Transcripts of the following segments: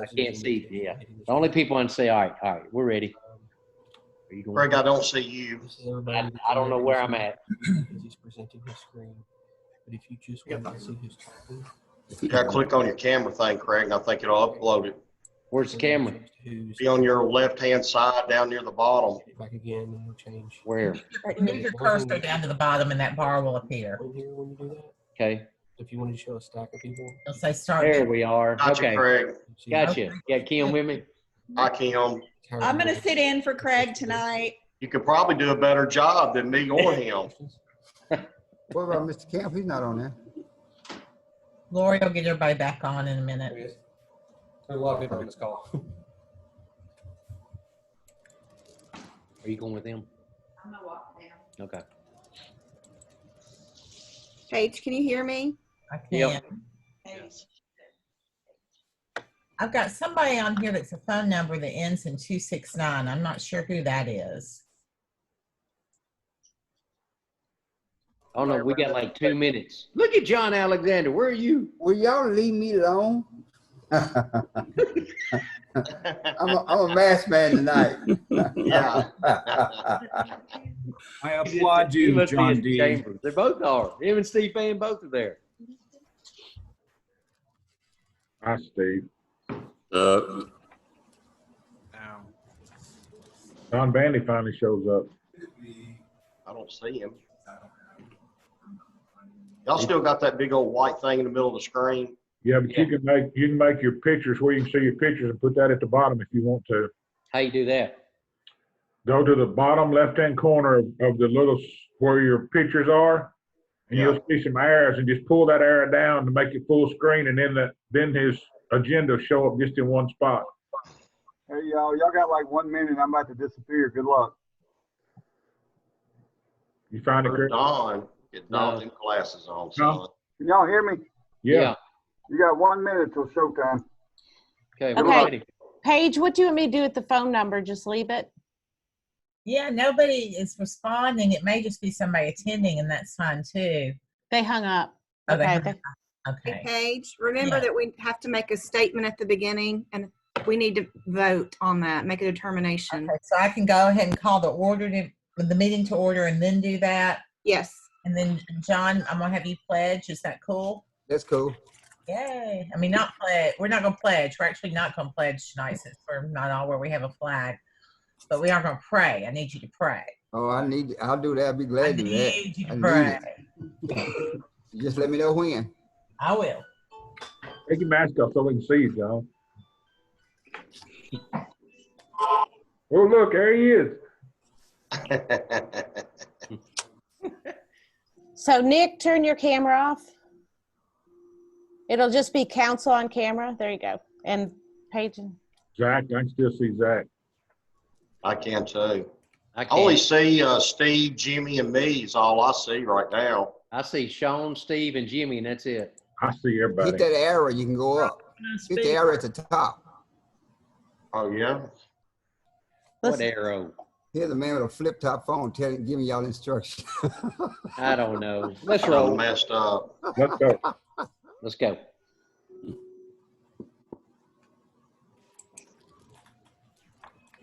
I can't see, yeah. The Um, only people on say, all right, all right, we're ready. Are you going? Greg, I don't see you. this is everybody I, that's I don't know where I'm at. Because he's presenting his screen. But if you just want to see his copy. You gotta click on your camera thing, Craig, and I think it'll upload it. Where's the camera? Who's Be on your left-hand side down near the bottom. back again and we'll change. Where? Move your cursor down to the bottom and that bar will appear. In here when you do that, Okay, if you wanted to show a stack of people. It'll say start. there we are. Gotcha, Okay, Craig. you see- gotcha. Yeah, Kim with me? Hi, Kim. I'm going to sit in for Craig tonight. You could probably do a better job than me or him. What about Mr. Camp? He's not on there. Lori will get everybody back on in a minute. A lot of people on this call. Are you going with them? I'm going to walk down. Okay. Paige, can you hear me? I can. Yep. I've got somebody on here that's a phone number that ends in two six nine. I'm not sure who that is. Oh no, we got like two minutes. Look at John Alexander. Where are you? Will y'all leave me alone? I'm a, I'm a masked man tonight. Yeah. I applaud you, must be John in D. chambers. They both are. Him and Steve Fan both are there. Hi, Steve. Uh, Don Vandy finally shows up. I don't see him. Y'all still got that big old white thing in the middle of the screen? Yeah, but you Yeah. can make, you can make your pictures where you can see your pictures and put that at the bottom if you want to. How you do that? Go to the bottom left-hand corner of of the little, s- where your pictures are. And you'll see some arrows and just pull that arrow down to make it full screen and then the, then his agenda will show up just in one spot. Hey, y'all, y'all got like one minute. I'm about to disappear. Good luck. You find it, Or Chris? Don? Get Don them glasses on, son. Can y'all hear me? Yeah, You got one minute till showtime. Okay, we're Okay. ready. Paige, what do you want me to do with the phone number? Just leave it? Yeah, nobody is responding. It may just be somebody attending, and that's fine too. They hung up. Oh, they Okay. hung they- Okay. Paige, remember Yeah. that we have to make a statement at the beginning and we need to vote on that, make a determination. Okay, so I can go ahead and call the order to, the meeting to order and then do that. Yes. And then, John, I'm gonna have you pledge. Is that cool? That's cool. Yay. I mean, not pledge. We're not gonna pledge. We're actually not gonna pledge tonight since we're not all where we have a flag. But we are gonna pray. I need you to pray. Oh, I need, I'll do that. I'll be I glad to do that. need you I to need pray. Just let me know when. I will. take your mask off so we can see you, John. Oh, look, there he is. So Nick, turn your camera off. It'll just be council on camera. There you go. And Paige, and- Zach, I can still see Zach. I can too. I I only can't. see uh, Steve, Jimmy, and me is all I see right now. I see Sean, Steve, and Jimmy, and that's it. I see everybody. Hit that arrow, you can go up. Hit the arrow at the top. Oh, yeah? What Listen. arrow? Here's a man with a flip top phone telling, giving y'all instructions. I don't know. Let's Kinda roll. messed up. Let's go. Let's go.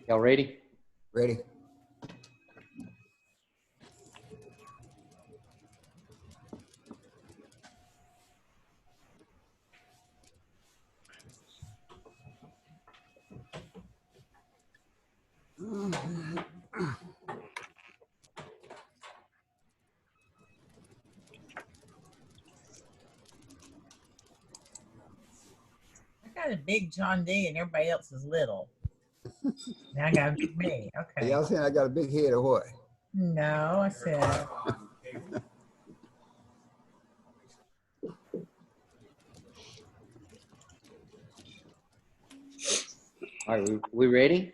Y'all ready? Ready? I got a big John D and everybody else is little. Now I got a big me. Okay. Y'all saying I got a big head or what? No, I said. All right, we, we ready?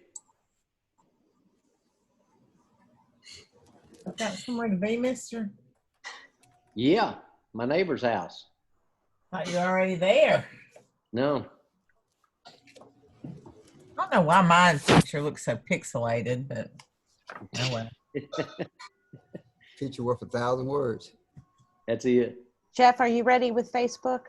Got somewhere to be, mister? Yeah, my neighbor's house. Thought you were already there. No, I don't know why my picture looks so pixelated, but oh well. Picture worth a thousand words. that's it. Jeff, are you ready with Facebook?